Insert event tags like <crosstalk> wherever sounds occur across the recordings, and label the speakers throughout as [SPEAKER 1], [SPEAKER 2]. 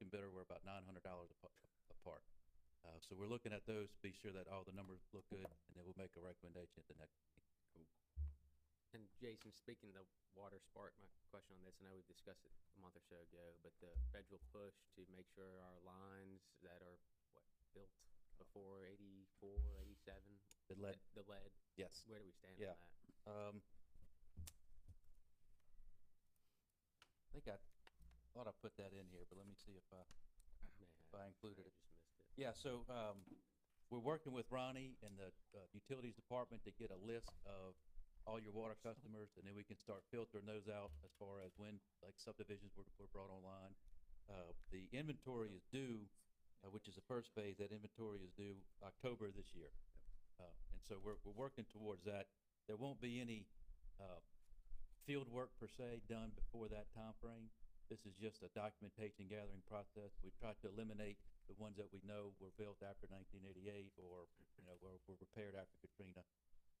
[SPEAKER 1] bidder were about nine hundred dollars apart. Uh, so we're looking at those, to be sure that all the numbers look good, and then we'll make a recommendation at the next.
[SPEAKER 2] And Jason, speaking of the water spark, my question on this, I know we've discussed it a month or so ago, but the federal push to make sure our lines that are, what, built before eighty-four, eighty-seven?
[SPEAKER 1] The lead,
[SPEAKER 2] The lead,
[SPEAKER 1] yes.
[SPEAKER 2] where do we stand
[SPEAKER 1] Yeah.
[SPEAKER 2] on that?
[SPEAKER 1] Um, I think I thought I put that in here, but let me see if I,
[SPEAKER 2] May have-
[SPEAKER 1] if I
[SPEAKER 2] may
[SPEAKER 1] included
[SPEAKER 2] have
[SPEAKER 1] it.
[SPEAKER 2] Just missed it.
[SPEAKER 1] Yeah, so, um, we're working with Ronnie and the, uh, utilities department to get a list of all your water customers, and then we can start filtering those out as far as when, like subdivisions were, were brought online. Uh, the inventory is due, uh, which is the first phase, that inventory is due October this year. Uh, and so we're, we're working towards that. There won't be any, uh, field work per se done before that timeframe. This is just a documentation gathering process. We've tried to eliminate the ones that we know were built after nineteen eighty-eight or, you know, were, were repaired after Katrina.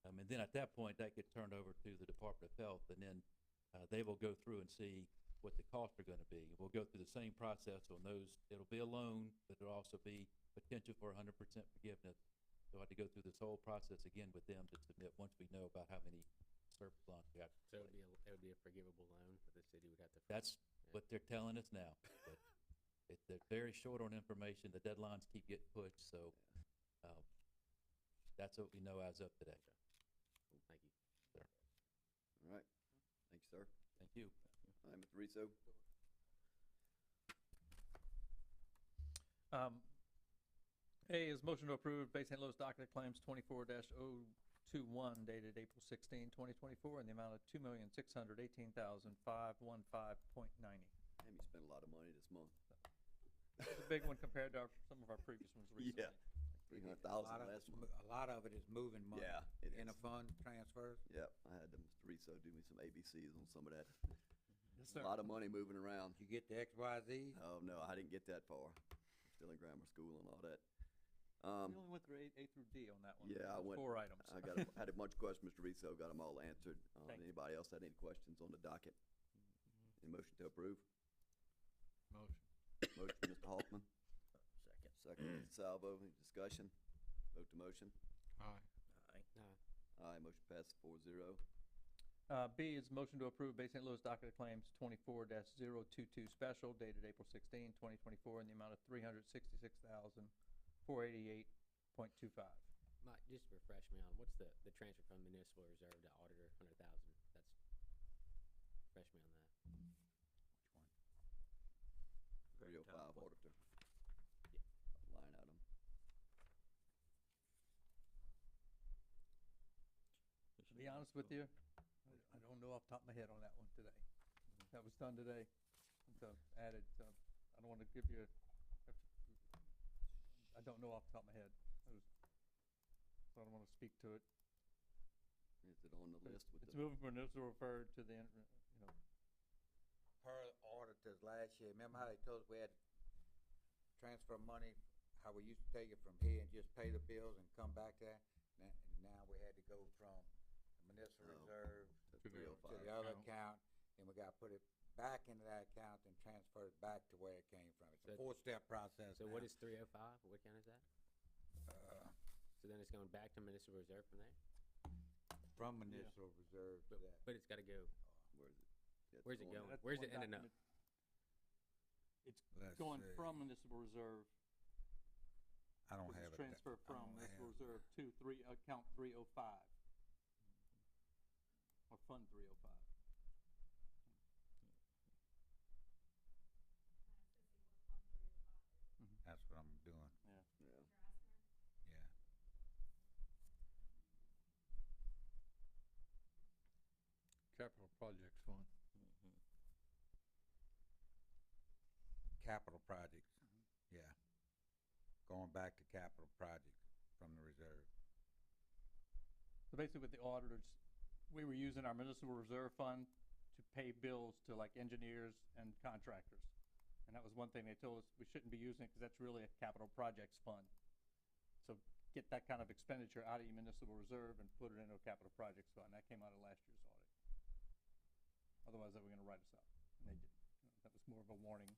[SPEAKER 1] Um, and then at that point, that gets turned over to the Department of Health and then, uh, they will go through and see what the costs are gonna be. We'll go through the same process on those. It'll be a loan, but it'll also be potential for hundred percent forgiveness. So I have to go through this whole process again with them to submit, once we know about how many surplus loans we have.
[SPEAKER 2] So it would be, a- it would be a forgivable loan, but the city would have to. forgive
[SPEAKER 1] That's
[SPEAKER 2] Yeah.
[SPEAKER 1] what they're telling us now. <laughs> but It, they're very short on information, the deadlines keep getting pushed, so, um, that's what we know as of today.
[SPEAKER 2] it. Thank you.
[SPEAKER 3] All right, thank you, sir.
[SPEAKER 1] Thank you.
[SPEAKER 3] All right, Mr. Rizzo,
[SPEAKER 4] Um, A is motion to approve Bay St. Louis docket claims twenty-four 21 dated April 16, 2024, in the amount of two million, six hundred eighteen thousand, five one five point ninety.
[SPEAKER 3] damn, you spent a lot of money this month.
[SPEAKER 4] It's a big one compared to our, some of our previous ones
[SPEAKER 3] <laughs>
[SPEAKER 4] recently.
[SPEAKER 3] Three hundred
[SPEAKER 5] A
[SPEAKER 3] thousand
[SPEAKER 5] lot of
[SPEAKER 3] last
[SPEAKER 5] it's
[SPEAKER 3] month.
[SPEAKER 5] mo- A lot of it is moving money.
[SPEAKER 3] Yeah, it
[SPEAKER 5] In a
[SPEAKER 3] is.
[SPEAKER 5] fund transfers.
[SPEAKER 3] Yep, I had to, Mr. Rizzo, do me some ABCs on some of that.
[SPEAKER 4] Yes,
[SPEAKER 3] A lot of money moving around.
[SPEAKER 5] You get the X, Y, Z.
[SPEAKER 3] Oh, no, I didn't get that far. Still in grammar school and all that. Um,
[SPEAKER 4] We only went through A, A through D on that one.
[SPEAKER 3] Yeah, I
[SPEAKER 4] There's
[SPEAKER 3] went-
[SPEAKER 4] Four items.
[SPEAKER 3] I got, a- had a bunch of questions, Mr. Rizzo, got them all answered. Um,
[SPEAKER 4] Thank you.
[SPEAKER 3] anybody else had any questions on the docket?
[SPEAKER 5] Mm-hmm.
[SPEAKER 3] Any motion to approve? Motion. Motion, Mr. Hoffman. Second. Second, Mr. Salvo, any discussion? Vote to motion.
[SPEAKER 2] No,
[SPEAKER 3] Aye, motion passes four zero.
[SPEAKER 4] Uh, B is motion to approve Bay St. Louis docket of claims twenty-four 22 special dated April 16, 2024, in the amount of three hundred sixty-six thousand, four eighty-eight point two five.
[SPEAKER 2] Mike, just refresh me on, what's the, the transfer from municipal reserve to auditor, hundred thousand? That's, refresh me on that.
[SPEAKER 3] Three oh five auditor. Line item.
[SPEAKER 4] To be honest with you, I- I don't know off the top of my head on that one today. That was done today, so added, so I don't wanna give you, a- I don't know off the top of my head. I was- so I don't wanna speak to it.
[SPEAKER 3] Is it on the
[SPEAKER 4] but
[SPEAKER 3] list with
[SPEAKER 4] It's
[SPEAKER 3] the,
[SPEAKER 4] moving from municipal refer to the, inter- you know,
[SPEAKER 5] Per auditors last year, remember how they told us we had to transfer money, how we used to take it from here and just pay the bills and come back there? Now, now we had to go from the municipal
[SPEAKER 3] Oh.
[SPEAKER 5] reserve
[SPEAKER 3] three oh
[SPEAKER 5] to the
[SPEAKER 3] five?
[SPEAKER 5] other account, and we gotta put it back into that account and transfer it back to where it came from. It's
[SPEAKER 2] So-
[SPEAKER 5] a four-step process
[SPEAKER 2] So what
[SPEAKER 5] now.
[SPEAKER 2] is three oh five? What account is that?
[SPEAKER 5] Uh,
[SPEAKER 2] So then it's going back to municipal reserve from there?
[SPEAKER 5] From municipal reserve to
[SPEAKER 2] But,
[SPEAKER 5] that.
[SPEAKER 2] but it's gotta go,
[SPEAKER 3] Where's it? Yeah, it's
[SPEAKER 2] where's it going? Where's
[SPEAKER 3] on there.
[SPEAKER 4] that's one
[SPEAKER 2] it ending up?
[SPEAKER 4] document
[SPEAKER 5] Let's
[SPEAKER 4] Going
[SPEAKER 5] see.
[SPEAKER 4] from municipal reserve,
[SPEAKER 5] I don't
[SPEAKER 4] this
[SPEAKER 5] have
[SPEAKER 4] is
[SPEAKER 5] it. da-
[SPEAKER 4] transfer
[SPEAKER 5] I
[SPEAKER 4] from
[SPEAKER 5] don't
[SPEAKER 4] municipal
[SPEAKER 5] have-
[SPEAKER 4] reserve to three, account three oh five. Or fund three oh five.
[SPEAKER 5] That's what I'm doing,
[SPEAKER 3] Yeah.
[SPEAKER 5] yeah.
[SPEAKER 6] Capital Projects Fund.
[SPEAKER 5] Mm-hmm. Capital projects,
[SPEAKER 6] Mm-hmm.
[SPEAKER 5] yeah. Going back to capital projects from the reserve.
[SPEAKER 4] So basically with the auditors, we were using our municipal reserve fund to pay bills to like engineers and contractors. And that was one thing they told us, we shouldn't be using it because that's really a capital projects fund. So get that kind of expenditure out of your municipal reserve and put it into a capital projects fund. That came out of last year's audit. Otherwise, they were gonna write us up. And they did. That was more of a warning